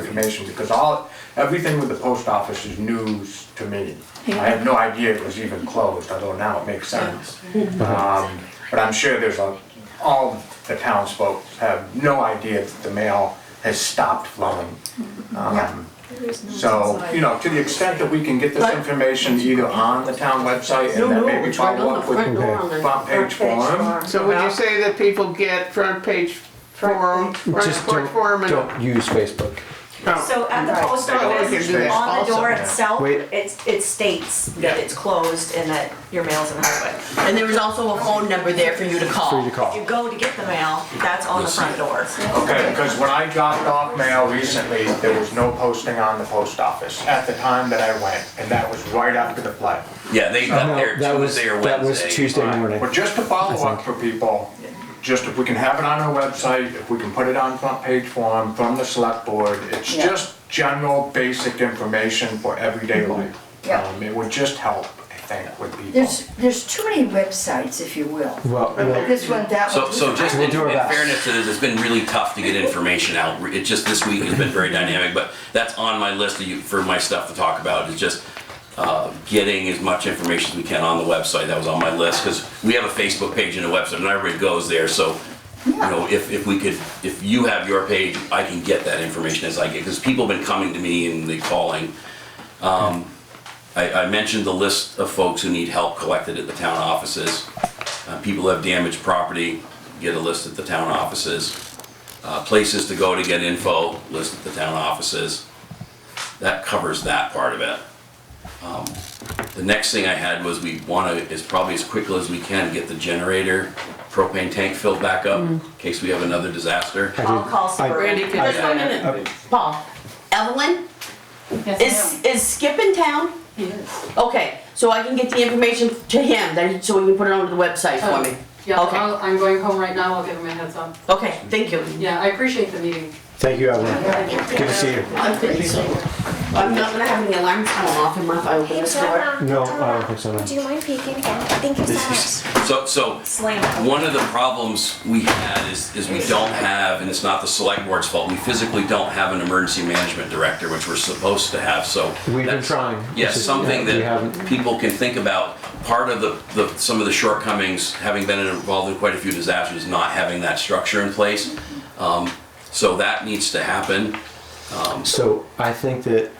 information, because all, everything with the post office is news to me. I have no idea it was even closed, although now it makes sense. Um, But I'm sure there's a, all the townsfolk have no idea that the mail has stopped flowing. Um, So, you know, to the extent that we can get this information either on the town website and then maybe it's right follow on the up with front door on the front page form. So would you say that people get front page forum, front Just porch don't, forum and? don't use Facebook. Oh, So at the post Right. Oh, we can office, do that on the also, door yeah. itself, Wait. it's, it states that Yeah. it's closed and that your mail's in Hardwick. And there was also a phone number there for you to call. Free to If you call. go to get the mail, that's on the front door. Okay, because when I dropped off mail recently, there was no posting on the post office at the time that I went, and that was right after the flood. Yeah, they got there that was Tuesday or Wednesday. that was Tuesday morning. But just to follow up for people, just if we can have it on our website, if we can put it on front page form from the select board, it's Yeah. just general, basic information for everyday life. Mm-hmm. Yeah. Um, It would just help, I think, with people. There's, there's too many websites, if you will. Well, well, This one, that So, one. so just in, We'll in do our best. fairness to this, it's been really tough to get information out. It just, this week has been very dynamic, but that's on my list of you- for my stuff to talk about, is just, uh, getting as much information as we can on the website. That was on my list, because we have a Facebook page and a website, and everybody goes there, so, you know, if, if we could, if you have your page, I can get that information as I get, because people have been coming to me and they calling. Um, I, I mentioned the list of folks who need help collected at the town offices. Uh, people who have damaged property, get a list at the town offices. Uh, places to go to get info, list at the town offices. That covers that part of it. Um, The next thing I had was we wanna, as probably as quickly as we can, get the generator propane tank filled back up in case we have another disaster. I'll call Sabrina. Just one minute, Paul. Evelyn, is, is Skip in town? Okay, so I can get the information to him, then, so he can put it onto the website Oh. for me. Yeah, Okay. I'll- I'm going home right now, I'll give him a heads up. Okay, thank you. Yeah, I appreciate the meeting. thank you, Evelyn. Good to see you. I'm feeling so- I'm not gonna have any alarms going off in my, if I open this door. No, I don't think so, no. Do you mind peeking again? Thank you so much. So, so Slam. One of the problems we had is, is we don't have, and it's not the select board's fault, we physically don't have an emergency management director, which we're supposed to have, so. We've been that's- trying. This Yes, is- something yeah, we that haven't. people can think about. Part of the, the, some of the shortcomings, having been involved in quite a few disasters, not having that structure in place. Um, So that needs to happen. So I think that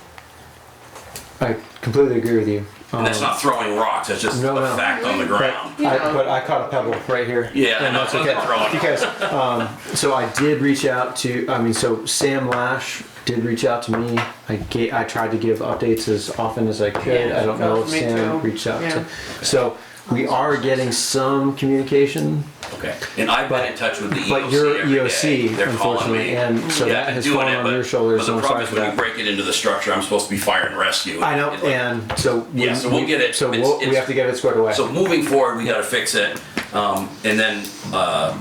I completely agree with you. And that's not throwing rocks, that's just Um, No, a no. fact on the ground. But I, but I caught a pebble right here. Yeah, I and know, that's I was okay gonna throw it. because um, so I did reach out to. I mean, so Sam Lash did reach out to me. I ga- I tried to give updates as often as I could. Yeah, I don't she know talked if to me Sam too. reached out Yeah. to. So we are getting some communication, Okay, and I've been in touch with the EOC but your every day. EOC, They're calling unfortunately, me. and so Yeah, that I've has been doing fallen it, on but- your shoulders. But so the I'm problem sorry is for when you that. break it into the structure, I'm supposed to be fire and rescue. I know, It- and so we, Yeah, so we'll get it. So It's- we'll, we it's- have to get it squared away. So moving forward, we gotta fix it. Um, and then, uh,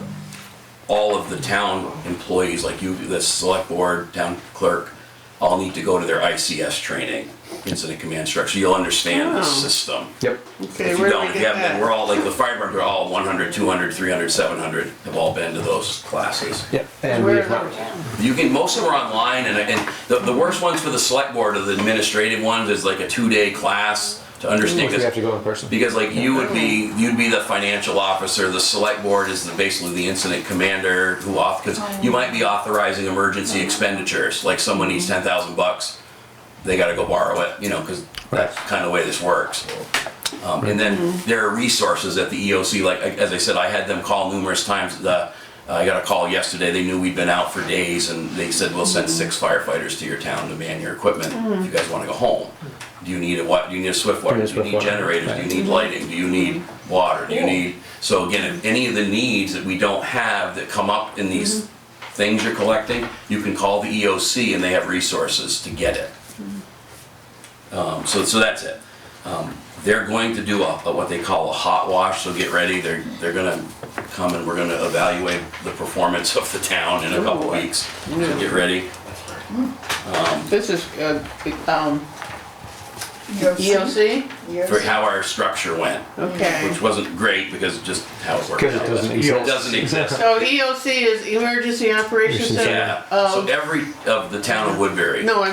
all of the town employees, like you, the select board, town clerk, all need to go to their ICS training, incident command structure. You'll understand the Oh. system. yep. Okay, If you where do don't, we if you get haven't, been, we're that? all, like, the fire department, are all 100, 200, 300, 700 have all been to those classes. Yep. And Where we've is not- that? You can, most of them are online, and, and the, the worst ones for the select board are the administrative ones, is like a two-day class to understand. Which we have to this. go in person. Because like you would be, you'd be the financial officer, the select board is the- basically the incident commander who off, because you might be authorizing emergency expenditures, like someone needs ten thousand bucks, they gotta go borrow it, you know, because that's kind of the way this works. Um, and then there are resources at the EOC, like, I- as I said, I had them call numerous times, the, uh, I got a call yesterday, they knew we'd been out for days, and they said, we'll send six firefighters to your town to man your equipment, if you guys wanna go home. Do you need a what, do you need a swift water, Yeah, do you swift need water, generators, do right. you need lighting, do you need water, do you need? So again, if any of the needs that we don't have that come up in these things you're collecting, you can call the EOC and they have resources to get it. Um, so, so that's it. Um, they're going to do a, a- what they call a hot wash, so get ready, they're, they're gonna come and we're gonna evaluate the performance of the town in a couple weeks, so get ready. This is, uh, um, ELC? for how our structure went, Okay. which wasn't great because of just how it worked out. Because it doesn't It exist. doesn't exist. So E EOC is Emergency Operations Center? Yeah, so of- every, of the town of Woodbury. No, I